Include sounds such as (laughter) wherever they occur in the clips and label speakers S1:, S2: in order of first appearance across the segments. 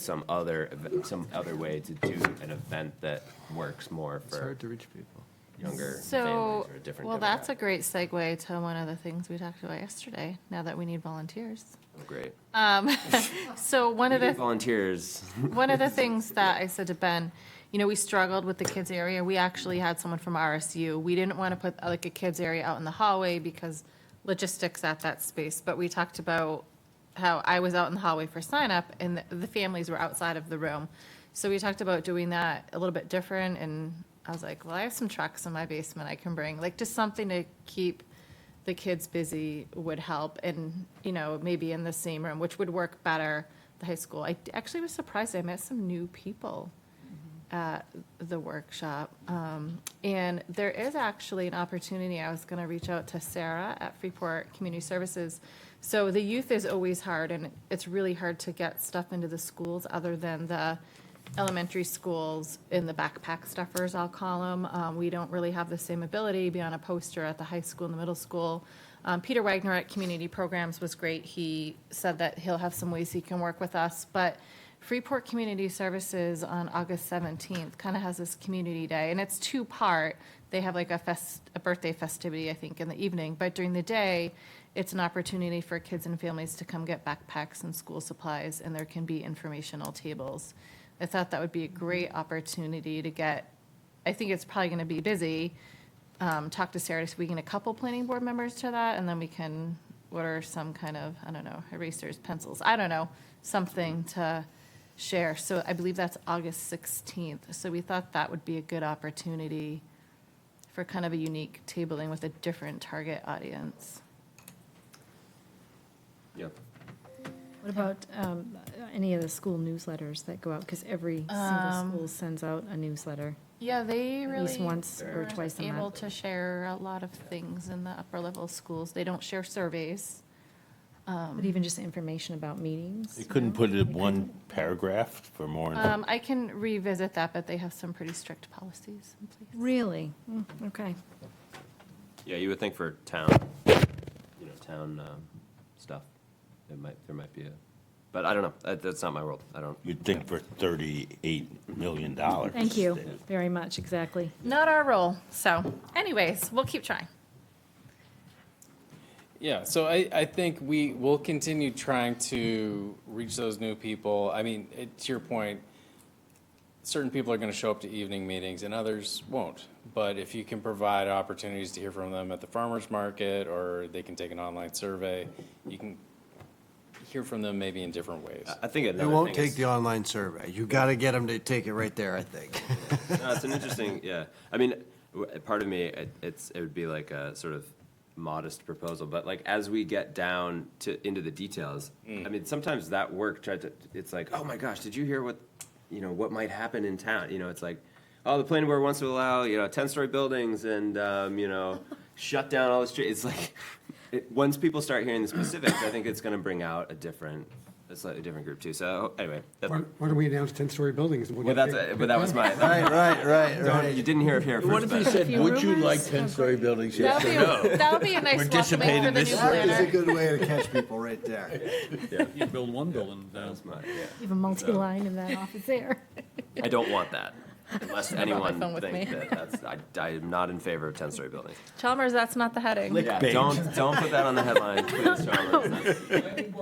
S1: some other, ev- some other way to do an event that works more
S2: It's
S1: for
S2: hard to reach people.
S1: younger
S3: So,
S1: families or a different.
S3: well, that's a
S1: demographic.
S3: great segue to one of the things we talked about yesterday, now that we need volunteers.
S1: Great.
S3: So one
S1: We
S3: of
S1: need
S3: the,
S1: volunteers. (laughs)
S3: one of the things that I said to Ben, you know, we struggled with the kids area. We actually had someone from RSU. We didn't want to put uh, like a kids area out in the hallway because logistics at that space. But we talked about how I was out in the hallway for sign up and the- the families were outside of the room. So we talked about doing that a little bit different and I was like, well, I have some trucks in my basement I can bring, like just something to keep the kids busy would help and, you know, maybe in the same room, which would work better, the high school. I d- actually was surprised. I met some new people at the workshop. Um, and there is actually an opportunity. I was going to reach out to Sarah at Freeport Community Services. So the youth is always hard and it's really hard to get stuff into the schools other than the elementary schools in the backpack stuffers, I'll call them. Um, we don't really have the same ability beyond a poster at the high school and the middle school. Um, Peter Wagner at Community Programs was great. He said that he'll have some ways he can work with us, but Freeport Community Services on August 17th kind of has this community day, and it's two-part. They have like a fest, a birthday festivity, I think, in the evening, but during the day, it's an opportunity for kids and families to come get backpacks and school supplies, and there can be informational tables. I thought that would be a great opportunity to get, I think it's probably going to be busy. Um, Talk to Sarah, so we can get a couple planning board members to that, and then we can order some kind of, I don't know, erasers, pencils, I don't know, something to share. So I believe that's August 16th. So we thought that would be a good opportunity for kind of a unique tabling with a different target audience.
S1: Yep.
S4: What about um, any of the school newsletters that go out? Because every single school sends out a newsletter.
S3: Yeah, they
S4: At
S3: really.
S4: least once or
S3: were
S4: twice a month.
S3: Able to share a lot of things in the upper level schools. They don't share surveys.
S4: But even just information about meetings.
S5: You couldn't put it in one paragraph for more,
S3: Um, I can revisit that, but they have some pretty strict policies in place.
S4: Really? Mm, Okay.
S1: Yeah, you would think for town, you know, town um, stuff, it might, there might be a, but I don't know. That- That's not my world. I don't.
S5: you'd think for $38 million.
S4: Thank you very much, exactly.
S3: Not our role. So anyways, we'll keep trying.
S6: Yeah, so I, I think we will continue trying to reach those new people. I mean, it, to your point, certain people are going to show up to evening meetings and others won't. But if you can provide opportunities to hear from them at the farmer's market or they can take an online survey, you can hear from them maybe in different ways.
S1: I- I think another
S2: They
S1: thing
S2: won't
S1: is-
S2: take the online survey. You got to get them to take it right there, I think.
S1: No, it's an interesting, yeah. I mean, w- part of me, it- it's, it would be like a sort of modest proposal, but like as we get down to, into the details, I mean, sometimes that work tried to, it's like, oh my gosh, did you hear what, you know, what might happen in town? You know, it's like, oh, the planning board wants to allow, you know, ten-story buildings and, um, you know, shut down all the streets. It's like, it, once people start hearing the specifics, I think it's gonna bring out a different, a slightly different group too. So anyway, that,
S7: Why why don't we announce 10-story buildings? and we'll
S1: well,
S7: get
S1: that's,
S7: big-
S1: a- but that was my,
S2: Right, right, right,
S1: Don't- you
S2: right.
S1: didn't hear it here first.
S5: What if
S1: but-
S5: you said,
S4: Few
S5: would you
S4: rumors
S5: like
S4: of-
S5: 10-story buildings?
S3: That'll
S5: Yes or
S3: be,
S5: no?
S3: that'll be a
S5: We're
S3: nice welcome in for
S5: dissipating
S3: the
S5: this
S3: new
S5: year.
S2: That is a
S3: planner.
S2: good way to catch people right (laughs) there.
S8: You build one building down.
S1: That's mine, yeah.
S4: Even multi-line in that office there.
S1: I don't want that,
S3: (laughs)
S1: unless anyone
S3: phone with
S1: thinks
S3: me.
S1: that that's, I, I am not in favor of ten-story buildings.
S3: Chalmers, that's not the heading.
S1: Yeah, don't, don't put that on the headline,
S3: (laughs)
S1: please, Chalmers. That's-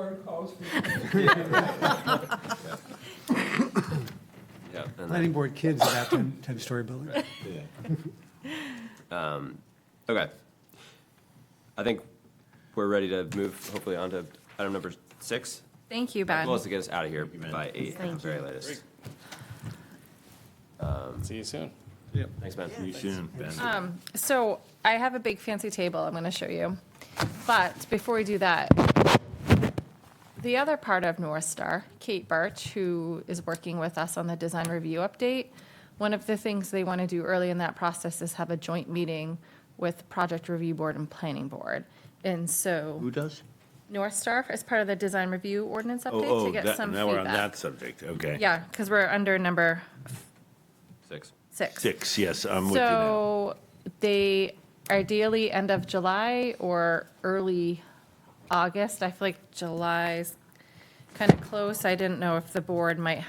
S1: Yeah, and then-
S7: Planning board kids about 10 10-story buildings.
S1: Okay. I think we're ready to move hopefully on to item number six.
S3: Thank you, Ben.
S1: Well, it's to get us out of here by eight at the very latest.
S6: See you soon.
S1: Thanks, man.
S3: Um, So I have a big fancy table I'm going to show you. But before we do that, the other part of North Star, Kate Birch, who is working with us on the design review update, one of the things they want to do early in that process is have a joint meeting with Project Review Board and Planning Board. And so
S5: Who does?
S3: North Star is part of the design review ordinance update
S5: Oh,
S3: to
S5: oh,
S3: get
S5: that-
S3: some
S5: now we're on that
S3: feedback.
S5: subject, okay.
S3: Yeah, because we're under number
S1: Six.
S3: six.
S5: Six, yes, I'm with you now.
S3: So they ideally end of July or early August. I feel like July's kind of close. I didn't know if the board might